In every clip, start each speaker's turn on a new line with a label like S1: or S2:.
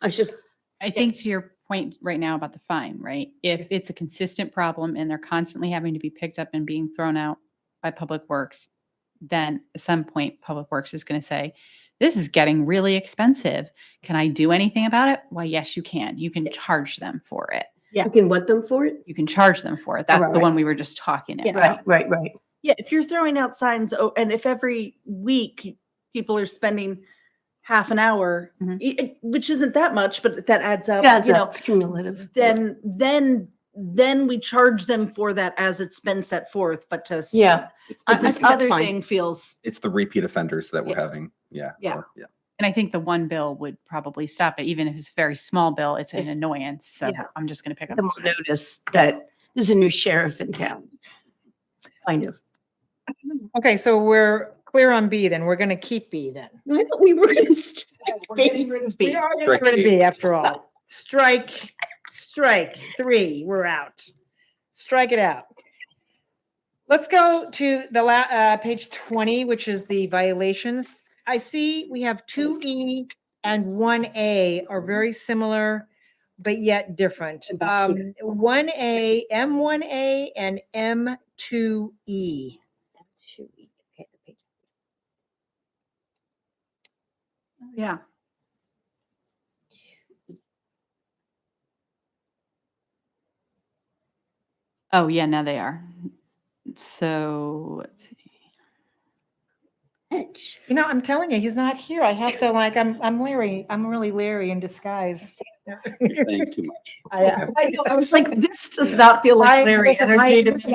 S1: I was just,
S2: I think to your point right now about the fine, right? If it's a consistent problem and they're constantly having to be picked up and being thrown out by Public Works, then at some point Public Works is going to say, this is getting really expensive. Can I do anything about it? Why, yes, you can. You can charge them for it.
S1: you can what them for it?
S2: You can charge them for it. That's
S3: Right,
S2: the
S3: right.
S2: one we were just talking
S1: Yeah.
S2: about.
S3: Right, right, right.
S4: Yeah, if you're throwing out signs, oh, and if every week people are spending half an hour,
S2: Mhm.
S4: i- i- which isn't that much, but that Mm-hmm. adds up.
S3: Yeah, it's,
S4: you
S3: a-
S4: know,
S3: it's cumulative.
S4: then then then we charge them for that as it's been set forth. But to s-
S3: Yeah.
S4: but
S3: I- I
S4: this
S3: think that's
S4: other
S3: fine.
S4: thing feels
S5: It's the repeat offenders that we're
S4: Yeah.
S5: having. Yeah.
S4: Yeah.
S5: or- Yeah.
S2: And I think the one bill would probably stop it, even if it's a very small bill, it's an annoyance. So
S4: Yeah.
S2: I'm just going to pick up.
S3: Them
S2: the
S3: will
S2: signs.
S3: notice that there's a new sheriff in town. Kind of.
S6: Okay, so we're clear on B then. We're going to keep B then.
S1: No, I thought we were going to.
S6: We're getting rid of B. We are getting
S5: Strike
S6: rid of
S5: B.
S6: B after all. Strike, strike three, we're out. Strike it out. Let's go to the la, uh, page twenty, which is the violations. I see we have two E and one A are very similar, but yet different.
S1: And back
S6: Um, one A, M one A and M two E.
S4: yeah.
S2: Oh, yeah, now they are. So let's see.
S3: Oh,
S6: You know, I'm telling you, he's not here. I have to like, I'm, I'm Larry. I'm really Larry in disguise.
S7: You're saying too much.
S6: I, uh,
S4: I know. I was like, this does not feel like Larry.
S6: listen, I- listen,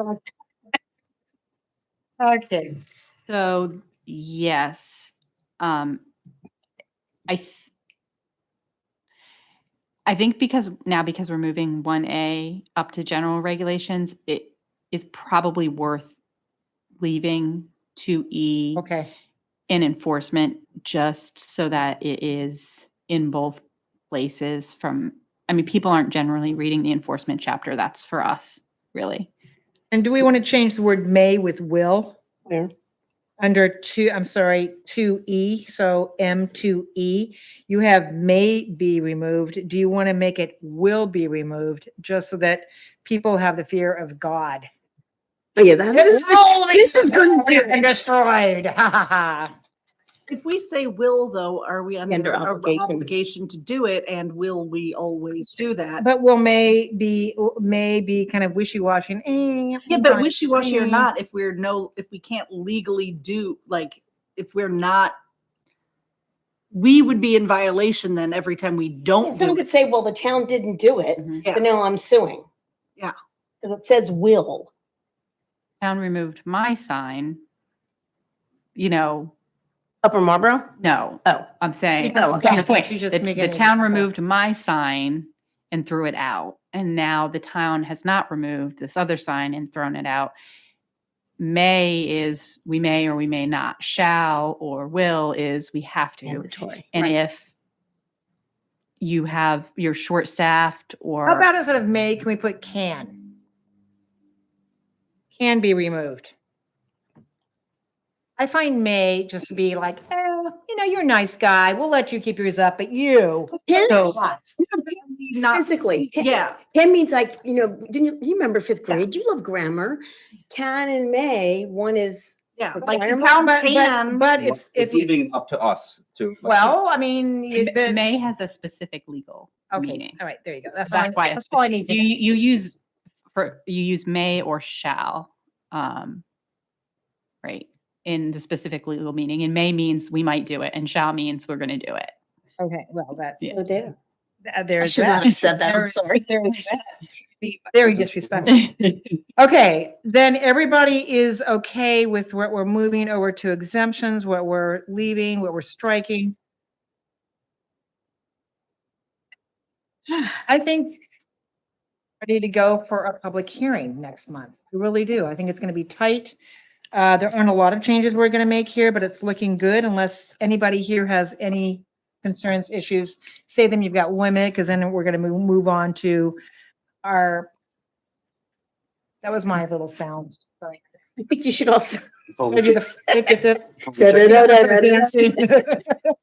S6: I- Okay.
S2: So yes, um, I. th- I think because now because we're moving one A up to general regulations, it is probably worth leaving two E
S6: Okay.
S2: in enforcement just so that it is in both places from. I mean, people aren't generally reading the enforcement chapter. That's for us, really.
S6: And do we want to change the word may with will?
S3: Where?
S6: Under two, I'm sorry, two E, so M two E, you have may be removed. Do you want to make it will be removed? Just so that people have the fear of God.
S1: Oh, yeah, that is.
S6: This
S1: is gonna do it.
S6: And destroyed, ha ha ha.
S4: If we say will though, are we under,
S1: Under
S4: a- a
S1: obligation.
S4: obligation to do it? And will we always do that?
S6: But will may be, may be kind of wishy-washy. and, eh,
S4: Yeah, but
S6: fine.
S4: wishy-washy or
S6: Mm.
S4: not, if we're no, if we can't legally do, like, if we're not, we would be in violation then every time we don't
S3: Someone
S4: do
S3: could
S4: it.
S3: say, well, the town didn't do it, so now I'm suing.
S4: Mm-hmm. Yeah.
S3: Because it says will.
S2: town removed my sign, you know,
S3: Upper Marlboro?
S2: no,
S3: Oh.
S2: I'm saying,
S3: No,
S2: that's
S3: okay.
S2: kind of point.
S6: You just
S2: The,
S6: make
S2: the
S6: it
S2: town
S6: a-
S2: removed my sign and threw it out. And now the town has not removed this other sign and thrown it out. May is we may or we may not. Shall or will is we have to. And if you have you're short staffed or
S6: How about instead of may, can we put can? Can be removed. I find may just to be like, oh, you know, you're a nice guy. We'll let you keep yours up, but you.
S2: So-
S4: Not-
S8: physically. Can-
S4: Yeah,
S8: Can means like, you know, didn't you, you remember fifth grade? You love grammar. Can and may, one is,
S4: yeah,
S8: Okay.
S4: like the
S8: But-
S4: town
S6: But, but,
S4: can,
S6: but it's,
S5: It's
S6: it's,
S5: leaving up to us to.
S6: well, I mean,
S2: M-
S6: it- but-
S2: May has a specific legal
S6: okay,
S2: meaning.
S6: all right, there you go. That's
S2: That's
S6: all I-
S2: why
S6: That's all I need to
S2: you
S6: know.
S2: you use for you use may or shall um right in the specific legal meaning and may means we might do it and shall means we're going to do it
S6: Okay, well, that's,
S2: Yeah.
S8: oh, there.
S6: th- there's
S3: Should not
S6: that.
S3: have said that,
S6: There-
S3: I'm sorry.
S6: there's that. Be Very disrespectful. Okay, then everybody is okay with what we're moving over to exemptions, what we're leaving, what we're striking. I think ready to go for a public hearing next month. I really do. I think it's going to be tight. Uh, there aren't a lot of changes we're going to make here, but it's looking good unless anybody here has any concerns, issues. Say them, you've got one minute, because then we're going to move, move on to our, that was my little sound. Sorry.
S3: I think you should also
S6: Maybe the-
S3: Da, da, da, da, da, da.
S6: dancing.